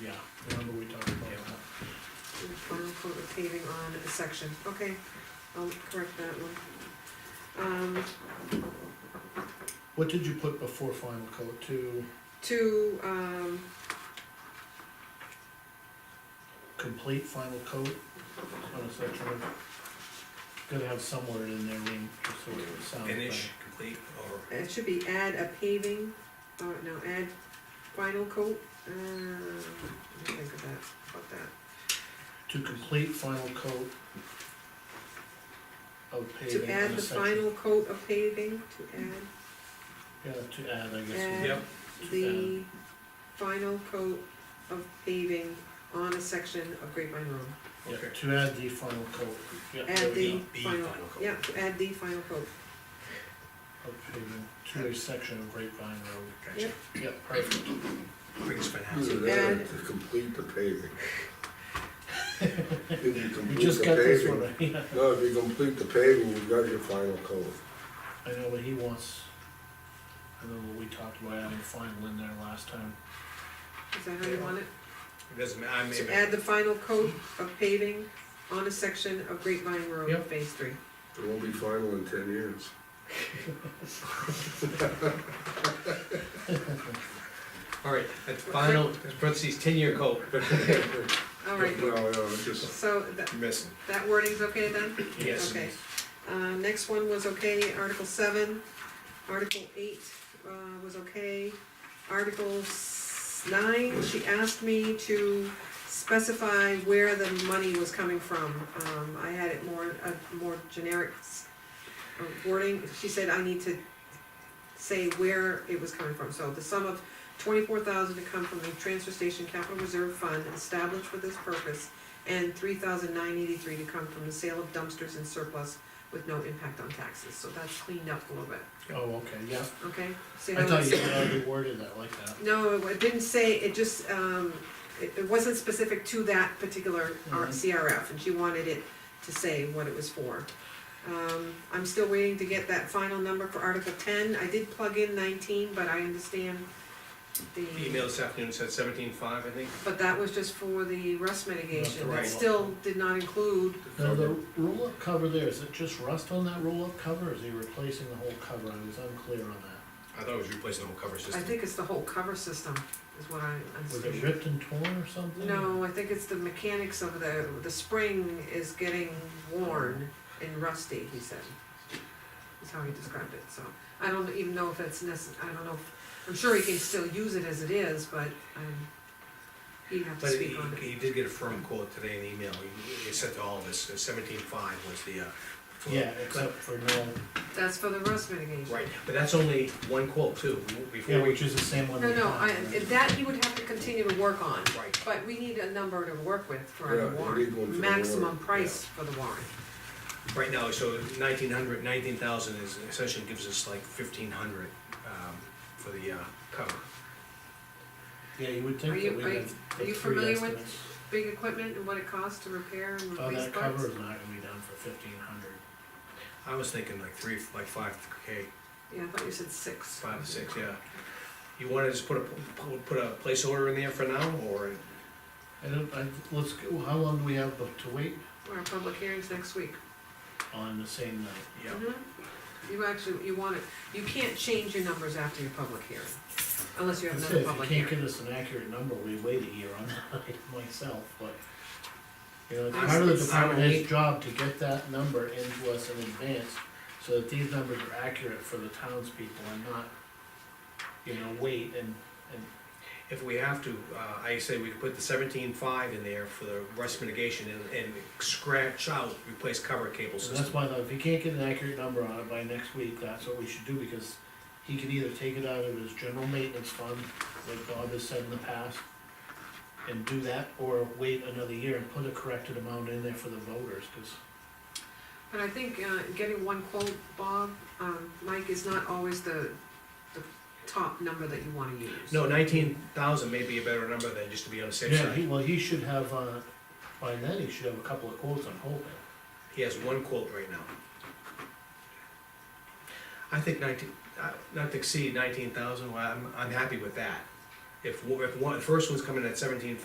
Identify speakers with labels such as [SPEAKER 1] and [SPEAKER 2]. [SPEAKER 1] yeah, remember we talked about
[SPEAKER 2] Yeah.
[SPEAKER 1] that.
[SPEAKER 3] And Final coat of paving on a section, okay, I'll correct that one. Um,
[SPEAKER 1] What did you put before final coat, to
[SPEAKER 3] to, um,
[SPEAKER 1] complete final coat on a section? Gotta have somewhere in there, name, just so it sounds better.
[SPEAKER 2] Finish, complete, or
[SPEAKER 3] it should be add a paving, or no, add final coat, uh, let me think of that, about that.
[SPEAKER 1] To complete final coat of paving
[SPEAKER 3] To
[SPEAKER 1] on
[SPEAKER 3] add
[SPEAKER 1] a
[SPEAKER 3] the
[SPEAKER 1] section.
[SPEAKER 3] final coat of paving, to add,
[SPEAKER 1] Yeah, to add, I guess,
[SPEAKER 3] add
[SPEAKER 2] Yep.
[SPEAKER 3] the final coat of paving on a section of Grapevine Road.
[SPEAKER 1] yeah,
[SPEAKER 2] Okay.
[SPEAKER 1] to add the final coat, yeah. there
[SPEAKER 3] Add
[SPEAKER 1] we
[SPEAKER 3] the
[SPEAKER 1] go,
[SPEAKER 2] The
[SPEAKER 3] final,
[SPEAKER 2] final coat.
[SPEAKER 3] yeah, to add the final coat,
[SPEAKER 1] Of paving, to a section of Grapevine Road,
[SPEAKER 2] gotcha,
[SPEAKER 3] Yep.
[SPEAKER 1] yeah, perfect.
[SPEAKER 2] brings finance.
[SPEAKER 4] Either that or to complete the paving. If you
[SPEAKER 1] We
[SPEAKER 4] complete
[SPEAKER 1] just
[SPEAKER 4] the
[SPEAKER 1] got this
[SPEAKER 4] paving-
[SPEAKER 1] one, yeah,
[SPEAKER 4] No, if you complete the paving, you got your final coat.
[SPEAKER 1] I know what he wants. I know what we talked about adding final in there last time,
[SPEAKER 3] is that how you want it?
[SPEAKER 2] It doesn't, ma- I
[SPEAKER 3] To
[SPEAKER 2] may,
[SPEAKER 3] add the final coat of paving on a section of Grapevine Road,
[SPEAKER 1] Yep.
[SPEAKER 3] phase three.
[SPEAKER 4] It won't be final in ten years.
[SPEAKER 2] all right, that's final, parentheses, ten-year coat.
[SPEAKER 3] All right,
[SPEAKER 4] No, no, it's just,
[SPEAKER 3] so that,
[SPEAKER 2] You're Missing.
[SPEAKER 3] that wording's okay then?
[SPEAKER 2] Yes.
[SPEAKER 3] Okay. Uh, next one was okay, Article seven, Article eight, uh, was okay. Article s- nine, she asked me to specify where the money was coming from. Um, I had it more, a more generic s- uh, wording, she said I need to say where it was coming from. So the sum of twenty-four thousand to come from the transfer station capital reserve fund established for this purpose, and three thousand nine eighty-three to come from the sale of dumpsters and surplus with no impact on taxes, so that's cleaned up a little bit,
[SPEAKER 1] Oh, okay, yeah,
[SPEAKER 3] okay? See
[SPEAKER 1] I
[SPEAKER 3] how
[SPEAKER 1] thought
[SPEAKER 3] it's-
[SPEAKER 1] you had already worded that like that,
[SPEAKER 3] No, it didn't say, it just, um, it, it wasn't specific to that particular R-
[SPEAKER 1] Mhm.
[SPEAKER 3] CRF, and she wanted it to say what it was for. Um, I'm still waiting to get that final number for Article ten, I did plug in nineteen, but I understand the.
[SPEAKER 2] Email this afternoon said seventeen-five, I think.
[SPEAKER 3] But that was just for the rust mitigation, that
[SPEAKER 2] roll-up.
[SPEAKER 3] still did not include,
[SPEAKER 1] now the roll-up cover there, is it just rust on that roll-up cover, or is he replacing the whole cover, I was unclear on that.
[SPEAKER 2] I thought it was replacing the whole cover
[SPEAKER 3] I
[SPEAKER 2] system.
[SPEAKER 3] think it's the whole cover system, is what I
[SPEAKER 1] Was it
[SPEAKER 3] understand.
[SPEAKER 1] ripped and torn or something?
[SPEAKER 3] No, I think it's the mechanics of the, the spring is getting worn and rusty, he said. Is how he described it, so, I don't even know if that's necess, I don't know, if- I'm sure he can still use it as it is, but, um, he'd have to
[SPEAKER 2] But
[SPEAKER 3] speak on
[SPEAKER 2] he,
[SPEAKER 3] it.
[SPEAKER 2] he did get a firm quote today in email, he, he sent to all of us, seventeen-five was the, uh. quote.
[SPEAKER 1] Yeah, except for no,
[SPEAKER 3] That's for the rust mitigation.
[SPEAKER 2] Right, but that's only one quote too, before
[SPEAKER 1] yeah,
[SPEAKER 2] we.
[SPEAKER 1] which is the same one.
[SPEAKER 3] No,
[SPEAKER 1] we
[SPEAKER 3] no,
[SPEAKER 1] had,
[SPEAKER 3] I,
[SPEAKER 1] right?
[SPEAKER 3] that he would have to continue to work on.
[SPEAKER 2] Right.
[SPEAKER 3] But we need a number to work with for the
[SPEAKER 4] Yeah, you need one for
[SPEAKER 3] warrant,
[SPEAKER 4] the
[SPEAKER 3] maximum
[SPEAKER 4] warrant,
[SPEAKER 3] price for the warrant.
[SPEAKER 2] Right now, so nineteen hundred, nineteen thousand is, essentially gives us like fifteen hundred, um, for the, uh, cover.
[SPEAKER 1] Yeah, you would
[SPEAKER 3] Are
[SPEAKER 1] think
[SPEAKER 3] you-
[SPEAKER 1] that we'd
[SPEAKER 3] are you-
[SPEAKER 1] have
[SPEAKER 3] are
[SPEAKER 1] the
[SPEAKER 3] you
[SPEAKER 1] three
[SPEAKER 3] familiar with-
[SPEAKER 1] estimates.
[SPEAKER 3] Big equipment and what it costs to repair and
[SPEAKER 1] Oh,
[SPEAKER 3] replace
[SPEAKER 1] that cover
[SPEAKER 3] parts.
[SPEAKER 1] is not gonna be done for fifteen hundred.
[SPEAKER 2] I was thinking like three, like five K,
[SPEAKER 3] Yeah, I thought you said six.
[SPEAKER 2] five, six, yeah. You wanna just put a, put a place order in there for now, or?
[SPEAKER 1] I don't, I, let's, go- how long do we have to wait
[SPEAKER 3] Our public hearings next week.
[SPEAKER 1] on the same night?
[SPEAKER 2] Yeah,
[SPEAKER 3] Mhm. You actually, you want it, you can't change your numbers after your public hearing, unless you have
[SPEAKER 1] That's
[SPEAKER 3] another
[SPEAKER 1] it,
[SPEAKER 3] public
[SPEAKER 1] If you can't
[SPEAKER 3] hearing.
[SPEAKER 1] give us an accurate number, we wait a year on that myself, but. You know, it's
[SPEAKER 3] I'm-
[SPEAKER 1] part of the
[SPEAKER 3] it's-
[SPEAKER 1] department
[SPEAKER 2] I'm-
[SPEAKER 1] head's job to get that number into us in advance, so that these numbers are accurate for the townspeople and not, you know, wait and, and,
[SPEAKER 2] if we have to, uh, I say we could put the seventeen-five in there for the rust mitigation and, and scratch out, replace cover cable
[SPEAKER 1] so
[SPEAKER 2] system.
[SPEAKER 1] that's why, though, if he can't get an accurate number on it by next week, that's what we should do, because he can either take it out of his general maintenance fund, like Bob has said in the past, and do that, or wait another year and put a corrected amount in there for the voters, cause
[SPEAKER 3] But I think, uh, getting one quote, Bob, um, Mike, is not always the, the top number that you wanna use.
[SPEAKER 2] No, nineteen thousand may be a better number than just to be on the safe
[SPEAKER 1] Yeah,
[SPEAKER 2] side.
[SPEAKER 1] he, well, he should have, uh, by then, he should have a couple of quotes, I'm hoping.
[SPEAKER 2] He has one quote right now. I think nineteen, uh, not to exceed nineteen thousand, well, I'm, I'm happy with that. If, one- if one, the first one's coming at seventeen